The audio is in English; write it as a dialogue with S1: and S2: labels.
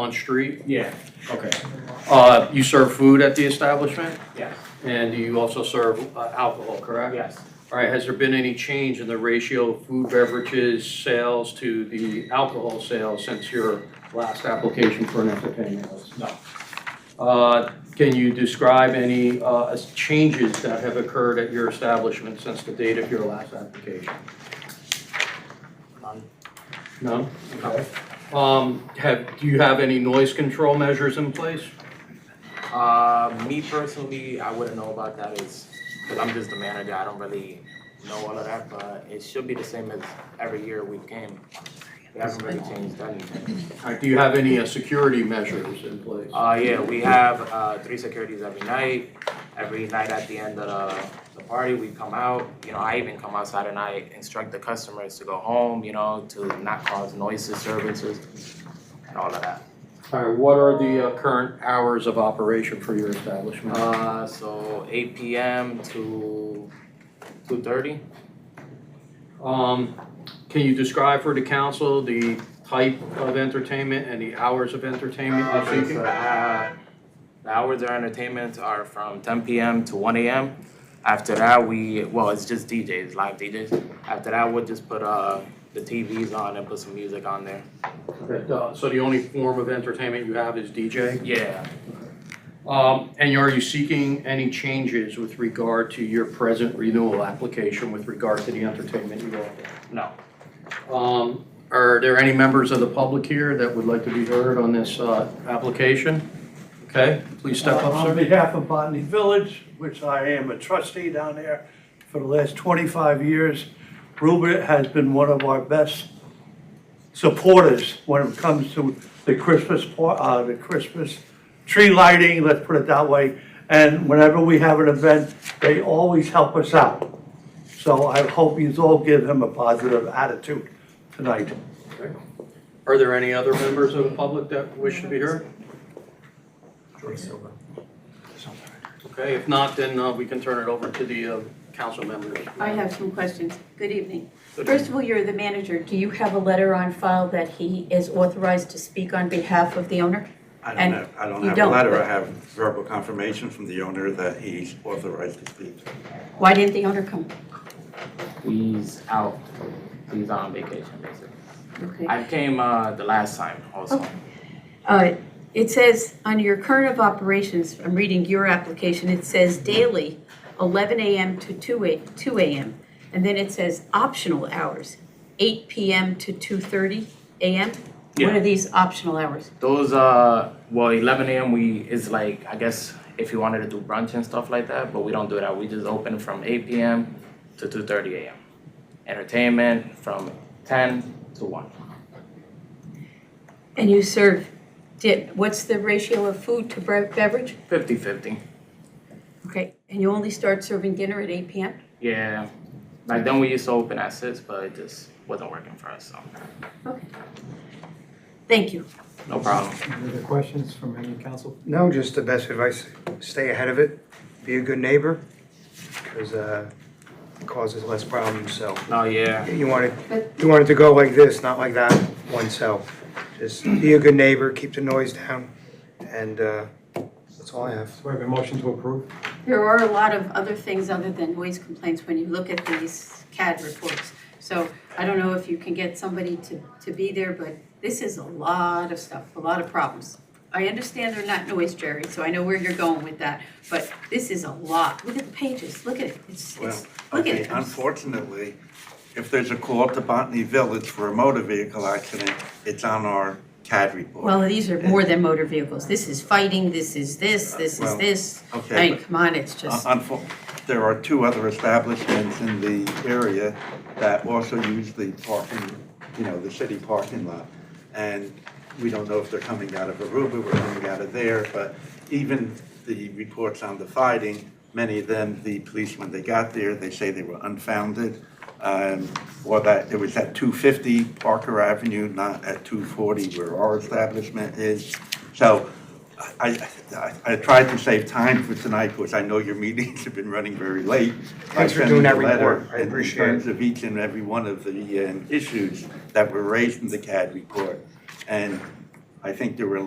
S1: on-street?
S2: Yeah,
S1: Okay. Uh, You serve food at the establishment,
S2: yes,
S1: and you also serve uh, alcohol, correct?
S2: yes.
S1: All right, has there been any change in the ratio of food beverages sales to the alcohol sales since your last application for an entertainment license?
S2: No.
S1: Uh, Can you describe any uh, as- changes that have occurred at your establishment since the date of your last application?
S2: None.
S1: No? Um, Have, do you have any noise control measures in place?
S2: Uh, me personally, I wouldn't know about that is, cause I'm just the manager, I don't really know all of that, but it should be the same as every year we came. We haven't really changed anything.
S1: Uh, Do you have any uh, security measures in place?
S2: Uh, yeah, we have, uh, three securities every night. Every night at the end of the, the party, we come out, you know, I even come outside and I instruct the customers to go home, you know, to not cause noise disturbances and all of that.
S1: All right, what are the uh, current hours of operation for your establishment?
S2: Uh, so eight PM to two thirty?
S1: Um, Can you describe for the council the type of entertainment and the hours of entertainment you're
S2: Okay, so,
S1: seeking?
S2: uh, the hours of entertainment are from ten PM to one AM. After that, we, well, it's just DJs, live DJs. After that, we'll just put, uh, the TVs on and put some music on there.
S1: Okay, uh, So the only form of entertainment you have is DJ?
S2: Yeah,
S1: Um, And are you seeking any changes with regard to your present renewal application with regard to the entertainment you offer?
S2: no,
S1: Um, Are there any members of the public here that would like to be heard on this uh, application? Okay, please step up,
S3: On
S1: sir.
S3: behalf of Botany Village, which I am a trustee down there for the last 25 years, Rupert has been one of our best supporters when it comes to the Christmas, par- uh, the Christmas tree lighting, let's put it that way. And whenever we have an event, they always help us out. So I hope you all give him a positive attitude tonight.
S1: Are there any other members of the public that wish to be heard? Okay, if not, then uh, we can turn it over to the uh, council members.
S4: I have some questions. Good evening. First of all, you're the manager. Do you have a letter on file that he is authorized to speak on behalf of the owner?
S5: I don't
S4: And
S5: have, I don't
S4: you
S5: have a
S4: don't,
S5: letter,
S4: but-
S5: I have verbal confirmation from the owner that he's authorized to speak.
S4: Why didn't the owner come?
S2: he's out, he's on vacation basically.
S4: Okay.
S2: I came, uh, the last time also.
S4: Okay. Uh, It says, under your current of operations, I'm reading your application, it says daily, 11 AM to 2 a- 2 AM. And then it says optional hours, 8 PM to 2:30 AM? What
S2: Yeah.
S4: are these optional hours?
S2: Those, uh, well, eleven AM, we, is like, I guess, if you wanted to do brunch and stuff like that, but we don't do that, we just open from eight PM to two thirty AM. Entertainment from ten to one.
S4: And you serve, di- what's the ratio of food to bre- beverage?
S2: 50-50.
S4: Okay, and you only start serving dinner at eight PM?
S2: Yeah, back then we used to open at six, but it just wasn't working for us, so,
S4: Okay. Thank you.
S2: no problem.
S6: Any other questions from any council?
S7: No, just the best advice, stay ahead of it, be a good neighbor, because uh, it causes less problems, so.
S1: Oh,
S2: No, yeah,
S7: You want it,
S4: But-
S7: you want it to go like this, not like that oneself. Just be a good neighbor, keep the noise down, and uh, that's all I have.
S6: So we have a motion to approve?
S4: There are a lot of other things other than noise complaints when you look at these CAD reports. So I don't know if you can get somebody to, to be there, but this is a lot of stuff, a lot of problems. I understand they're not noise, Jerry, so I know where you're going with that, but this is a lot. Look at the pages, look at it, it's,
S5: Well,
S4: it's, look at
S5: okay,
S4: it.
S5: unfortunately, if there's a call to Botany Village for a motor vehicle accident, it's on our CAD report.
S4: Well, these are more than motor vehicles. This is fighting, this is this, this is
S5: Well,
S4: this. I
S5: Okay,
S4: mean, come on, it's
S5: but,
S4: just.
S5: uh, unfo- there are two other establishments in the area that also use the parking, you know, the city parking lot. And we don't know if they're coming out of Aruba, we're coming out of there, but even the reports on the fighting, many of them, the police, when they got there, they say they were unfounded. um, Or that it was at 250 Parker Avenue, not at 240 where our establishment is. So I, I- I tried to save time for tonight because I know your meetings have been running very late.
S7: Thanks for
S5: I sent you
S7: doing
S5: a
S7: that report.
S5: letter
S7: I
S5: in- In
S7: appreciate it.
S5: terms of uh, each and every one of the um, issues that were raised in the CAD report. And I think there were like